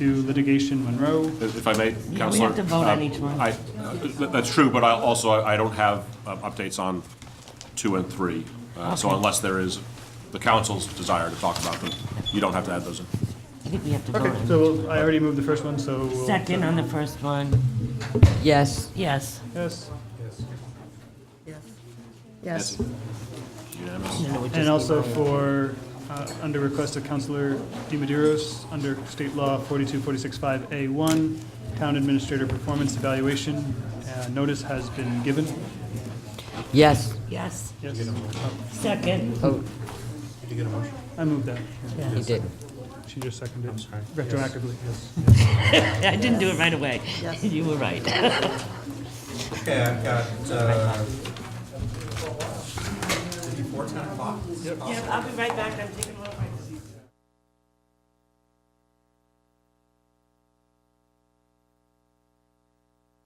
to litigation Monroe. If I may, we Counselor. have to vote on uh, each one. I- uh, That's true, but I also, I I don't have um, updates on two and three. Uh, So Okay. unless there is the council's desire to talk about them, you don't have to add those in. I think we have to vote Okay, on so we'll- I already moved the first one, so. we'll- Second on the first one, Yes. yes. Yes, Yes. Unanimous? No, no, we just and also need to- for, uh, under request of Counselor DiMaderos, under state law 42465A1, town administrator performance evaluation, uh, notice has been given. Yes. Yes, Yes, second, Oh, I moved that. he did. She just seconded retroactively. I didn't do it right away, you were right. Okay, I've got, uh, before ten o'clock? I'll be right back, I'm taking